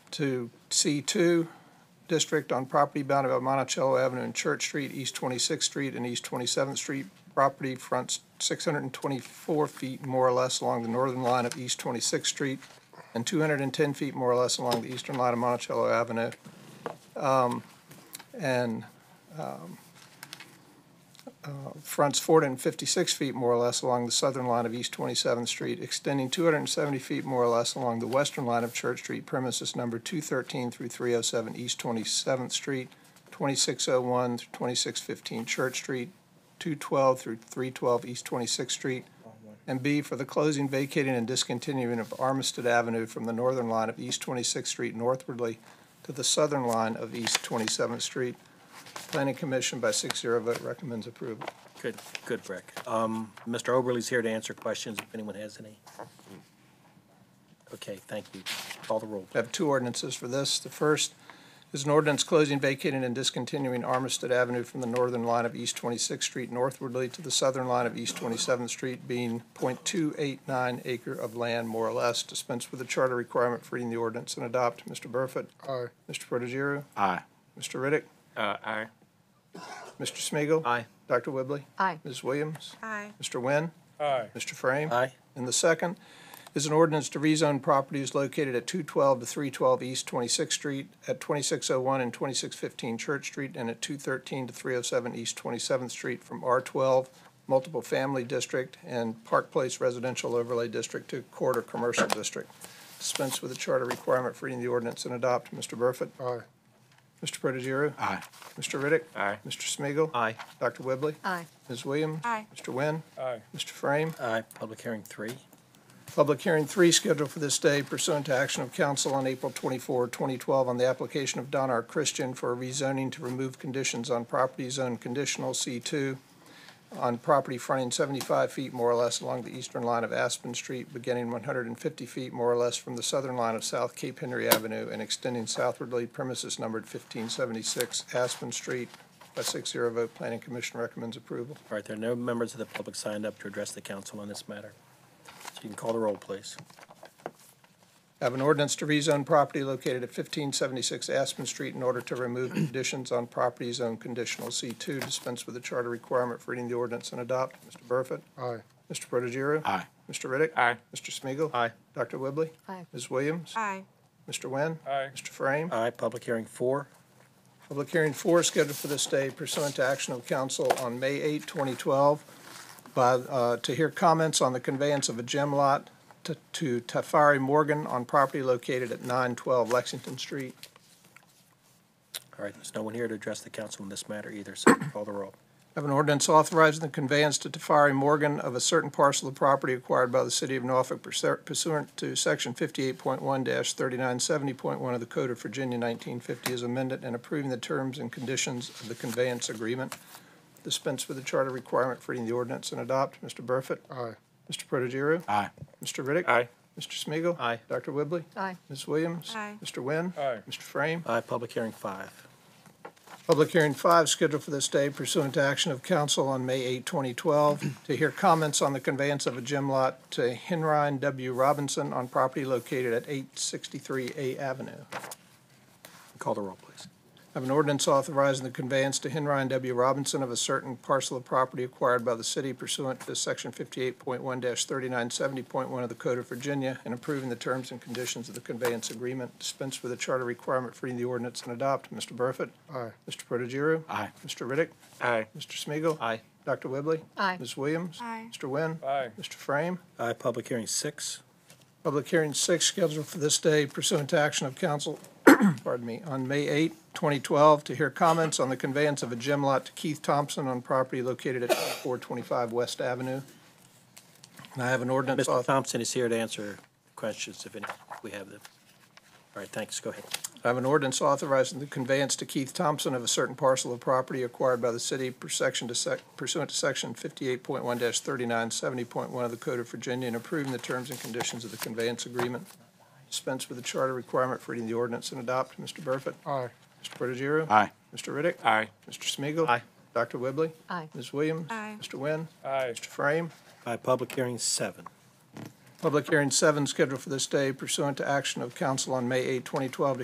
to C2 District on property bounded by Monticello Avenue and Church Street, East 26th Street and East 27th Street. Property fronts 624 feet more or less along the northern line of East 26th Street and 210 feet more or less along the eastern line of Monticello Avenue. Um, And fronts 456 feet more or less along the southern line of East 27th Street, extending 270 feet more or less along the western line of Church Street premises number 213 through 307 East 27th Street, 2601 through 2615 Church Street, 212 through 312 East 26th Street, and B, for the closing, vacating, and discontinuing of Armistead Avenue from the northern line of East 26th Street northwardly to the southern line of East 27th Street. Planning Commission by 6-0 vote recommends approval. Good, good, Rick. Um, Mr. Oberle's here to answer questions if anyone has any. Okay, thank you. Call the roll. I have two ordinances for this. The first is an ordinance closing, vacating, and discontinuing Armistead Avenue from the northern line of East 26th Street northwardly to the southern line of East 27th Street, being .289 acre of land, more or less. Dispense with the charter requirement for reading the ordinance and adopt. Mr. Burford? Aye. Mr. Protogiru? Aye. Mr. Riddick? Uh, aye. Mr. Smigiel, Aye. Dr. Whibley? Aye. Ms. Williams? Aye. Mr. Wynn? Aye. Mr. Frame? Aye. And the second is an ordinance to rezone properties located at 212 to 312 East 26th Street, at 2601 and 2615 Church Street, and at 213 to 307 East 27th Street from R12 Multiple Family District and Park Place Residential Overlay District to Quarter Commercial District. Dispense with the charter requirement for reading the ordinance and adopt. Mr. Burford? Aye. Mr. Protogiru? Aye. Mr. Riddick? Aye. Mr. Smigiel, Aye. Dr. Whibley? Aye. Ms. Williams? Aye. Mr. Wynn? Aye. Mr. Frame? Aye. Public hearing three. Public hearing three scheduled for this day pursuant to action of council on April 24, 2012, on the application of Don R. Christian for rezoning to remove conditions on property zone conditional C2 on property fronting 75 feet more or less along the eastern line of Aspen Street, beginning 150 feet more or less from the southern line of South Cape Henry Avenue and extending southwardly premises numbered 1576 Aspen Street. By 6-0 vote, Planning Commission recommends approval. All right, there are no members of the public signed up to address the council on this matter. So you can call the roll, please. I Have an ordinance to rezone property located at 1576 Aspen Street in order to remove conditions on property zone conditional C2, dispense with the charter requirement for reading the ordinance and adopt. Mr. Burford? Aye. Mr. Protogiru? Aye. Mr. Riddick? Aye. Mr. Smigiel, Aye. Dr. Whibley? Aye. Ms. Williams? Aye. Mr. Wynn? Aye. Mr. Frame? Aye. Public hearing four. Public hearing four is scheduled for this day pursuant to action of council on May 8, 2012, by, uh, to hear comments on the conveyance of a gem lot to- to Tafari Morgan on property located at 912 Lexington Street. All right, there's no one here to address the council on this matter either, so you can call the roll. I Have an ordinance authorizing the conveyance to Tafari Morgan of a certain parcel of property acquired by the city of Norfolk pursu- pursuant to section fifty-eight point one thirty-nine seventy point one of the Code of Virginia nineteen fifty as amended and approving the terms and conditions of the conveyance agreement. Dispense with the charter requirement for reading the ordinance and adopt. Mr. Burford? Aye. Mr. Protogiru? Aye. Mr. Riddick? Aye. Mr. Smigiel, Aye. Dr. Whibley? Aye. Ms. Williams? Aye. Mr. Wynn? Aye. Mr. Frame? Aye. Public hearing five. Public hearing five scheduled for this day pursuant to action of council on May 8, 2012, to hear comments on the conveyance of a gem lot to Henrine W. Robinson on property located at 863 A Avenue. Call the roll, please. I Have an ordinance authorizing the conveyance to Henrine W. Robinson of a certain parcel of property acquired by the city pursuant to section 58.1-3970.1 of the Code of Virginia and approving the terms and conditions of the conveyance agreement. Dispense with the charter requirement for reading the ordinance and adopt. Mr. Burford? Aye. Mr. Protogiru? Aye. Mr. Riddick? Aye. Mr. Smigiel, Aye. Dr. Whibley. Aye. Ms. Williams. Aye. Mr. Wynn. Aye. Mr. Frame. Aye. Public hearing six. Public hearing six scheduled for this day pursuant to action of council, pardon me, on May 8, 2012, to hear comments on the conveyance of a gem lot to Keith Thompson on property located at 2425 West Avenue. And I have an ordinance. Mr. auth- Thompson is here to answer questions if any, we have them. All right, thanks, go ahead. I have an ordinance authorizing the conveyance to Keith Thompson of a certain parcel of property acquired by the city per section to sec- pursuant to section 58.1-3970.1 of the Code of Virginia and approving the terms and conditions of the conveyance agreement. Dispense with the charter requirement for reading the ordinance and adopt. Mr. Burford? Aye. Mr. Protogiru? Aye. Mr. Riddick? Aye. Mr. Smigiel, Aye. Dr. Whibley? Aye. Ms. Williams? Aye. Mr. Wynn? Aye. Mr. Frame? Aye. Public hearing seven. Public hearing seven scheduled for this day pursuant to action of council on May 8, 2012, to